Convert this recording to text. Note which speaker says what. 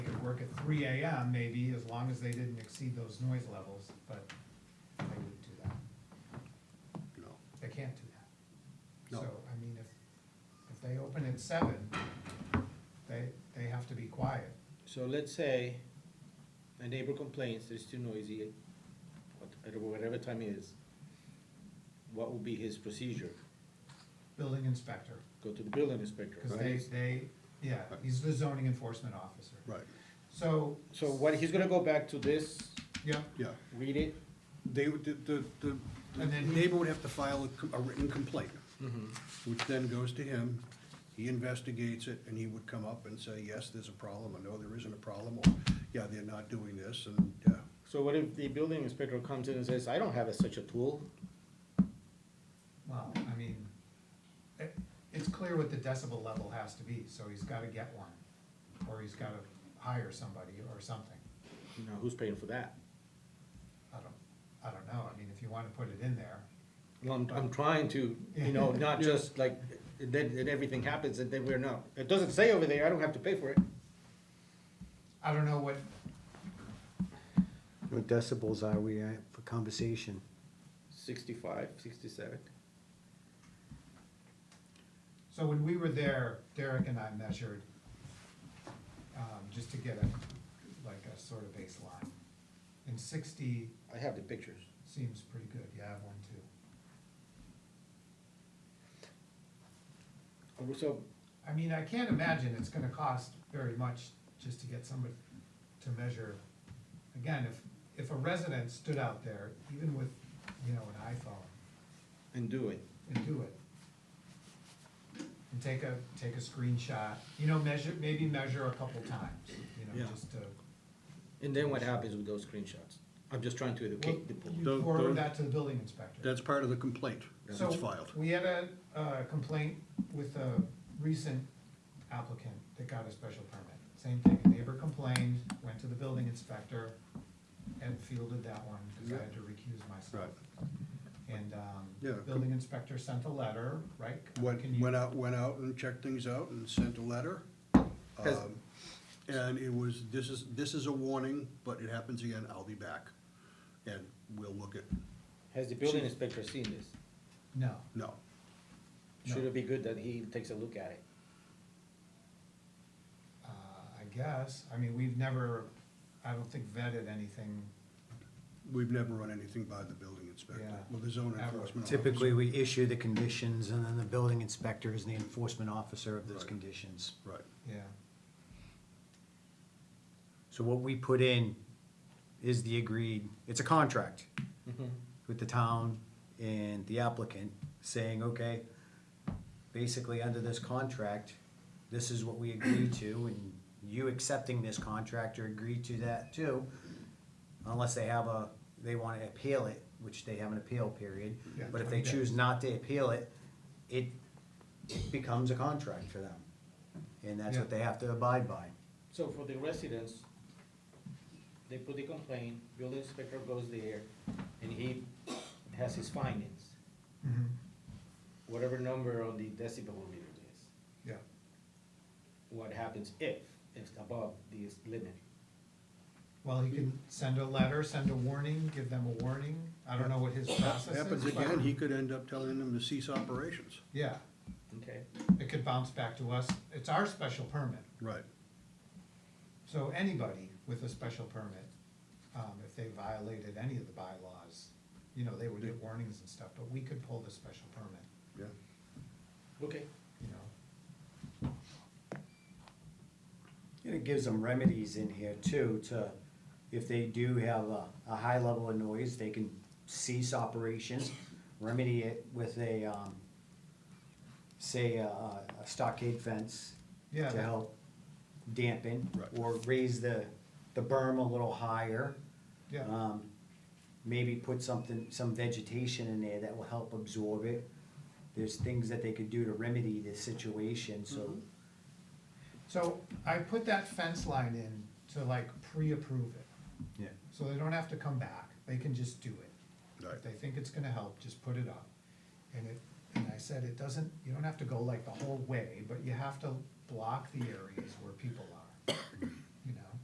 Speaker 1: three AM maybe, as long as they didn't exceed those noise levels, but they wouldn't do that.
Speaker 2: No.
Speaker 1: They can't do that.
Speaker 2: No.
Speaker 1: So, I mean, if, if they open at seven, they, they have to be quiet.
Speaker 3: So let's say a neighbor complains that it's too noisy, what- at whatever time it is, what would be his procedure?
Speaker 1: Building inspector,
Speaker 3: Go to the building inspector,
Speaker 1: because they,
Speaker 3: right?
Speaker 1: they, yeah, he's the zoning enforcement officer.
Speaker 2: Right,
Speaker 1: So,
Speaker 3: So what, he's gonna go back to this,
Speaker 1: yeah,
Speaker 2: yeah.
Speaker 3: read it,
Speaker 2: They, would- the, the, the-
Speaker 1: And
Speaker 2: the
Speaker 1: then he- Mm-hmm.
Speaker 2: neighbor would have to file a com- a written complaint, which then goes to him. He investigates it, and he would come up and say, yes, there's a problem, or no, there isn't a problem, or, yeah, they're not doing this, and, yeah.
Speaker 3: so what if the building inspector comes in and says, I don't have a- such a tool?
Speaker 1: well, I mean, it, it's clear what the decibel level has to be, so he's gotta get one, or he's gotta hire somebody or something.
Speaker 3: You know, who's paying for that?
Speaker 1: I don't, I don't know, I mean, if you wanna put it in there,
Speaker 3: Well, I'm, I'm trying to, you know, not just like, then, then everything happens and then we're not, it doesn't say over there, I don't have to pay for it.
Speaker 1: I don't know what,
Speaker 4: What decibels are we at for conversation?
Speaker 3: Sixty-five, sixty-seven.
Speaker 1: so when we were there, Derek and I measured, um, just to get a, like a sort of baseline. And sixty
Speaker 3: I have the pictures.
Speaker 1: seems pretty good, you have one too.
Speaker 3: So,
Speaker 1: I mean, I can't imagine it's gonna cost very much just to get somebody to measure. Again, if, if a resident stood out there, even with, you know, an iPhone,
Speaker 3: and do it.
Speaker 1: and do it. And take a, take a screenshot, you know, measure, maybe measure a couple times, you know,
Speaker 2: Yeah.
Speaker 1: just to.
Speaker 3: And then what happens with those screenshots? I'm just trying to educate the public.
Speaker 1: You
Speaker 2: Don't-
Speaker 1: forward
Speaker 2: don't-
Speaker 1: that to the building inspector.
Speaker 2: That's part of the complaint that's
Speaker 1: So,
Speaker 2: filed.
Speaker 1: we had a, uh complaint with a recent applicant that got a special permit. Same thing, a neighbor complained, went to the building inspector, and fielded that one, because I had to recuse myself. And,
Speaker 2: Yeah,
Speaker 1: um,
Speaker 2: com-
Speaker 1: building inspector sent a letter, right?
Speaker 2: Went,
Speaker 1: Can you-
Speaker 2: went out, went out and checked things out and sent a letter.
Speaker 3: Has-
Speaker 2: Um, And it was, this is, this is a warning, but it happens again, I'll be back. And we'll look at,
Speaker 3: Has the building inspector seen this?
Speaker 1: No,
Speaker 2: no,
Speaker 3: Should it be good that he takes a look at it?
Speaker 1: uh, I guess, I mean, we've never, I don't think vetted anything,
Speaker 2: we've never run anything by the building inspector,
Speaker 1: Yeah.
Speaker 2: well, the zone
Speaker 1: Ever.
Speaker 2: enforcement. officer.
Speaker 4: Typically, we issue the conditions and then the building inspector is the enforcement officer of those
Speaker 2: Right.
Speaker 4: conditions.
Speaker 2: Right,
Speaker 1: yeah.
Speaker 4: So what we put in is the agreed, it's a contract with the town and the applicant saying, okay, basically under this contract, this is what we agree to and you accepting this contract or agree to that too, unless they have a, they wanna appeal it, which they have an appeal period.
Speaker 1: Yeah,
Speaker 4: But if they
Speaker 1: 20 days.
Speaker 4: choose not to appeal it, it becomes a contract for them. And that's what
Speaker 1: Yeah.
Speaker 4: they have to abide by.
Speaker 3: So for the residents, they put the complaint, building inspector goes there, and he has his findings, Mm-hmm.
Speaker 1: Mhm.
Speaker 3: whatever number on the decibel reader it is.
Speaker 1: Yeah,
Speaker 3: What happens if it's above this limit?
Speaker 1: well, he can send a letter, send a warning, give them a warning, I don't know what his process is.
Speaker 2: happens
Speaker 1: but-
Speaker 2: again, he could end up telling them to cease operations,
Speaker 1: Yeah,
Speaker 3: Okay.
Speaker 1: it could bounce back to us. It's our special permit.
Speaker 2: right,
Speaker 1: So anybody with a special permit, um, if they violated any of the bylaws, you know, they would get warnings and stuff, but we could pull the special permit,
Speaker 2: yeah.
Speaker 3: Okay.
Speaker 1: you know?
Speaker 4: And it gives them remedies in here too, to, if they do have a, a high level of noise, they can cease operations, remedy it with a, um, say, a, a stockade fence
Speaker 1: Yeah,
Speaker 4: to
Speaker 1: that-
Speaker 4: help dampen,
Speaker 2: Right.
Speaker 4: or raise the, the berm a little higher.
Speaker 1: Yeah,
Speaker 4: Um, maybe put something, some vegetation in there that will help absorb it. There's things that they could do to remedy the situation, so
Speaker 1: so I put that fence line in to like pre-approve it.
Speaker 4: Yeah.
Speaker 1: So they don't have to come back, they can just do it.
Speaker 2: Right.
Speaker 1: If they think it's gonna help, just put it up. And it, and I said, it doesn't, you don't have to go like the whole way, but you have to block the areas where people are.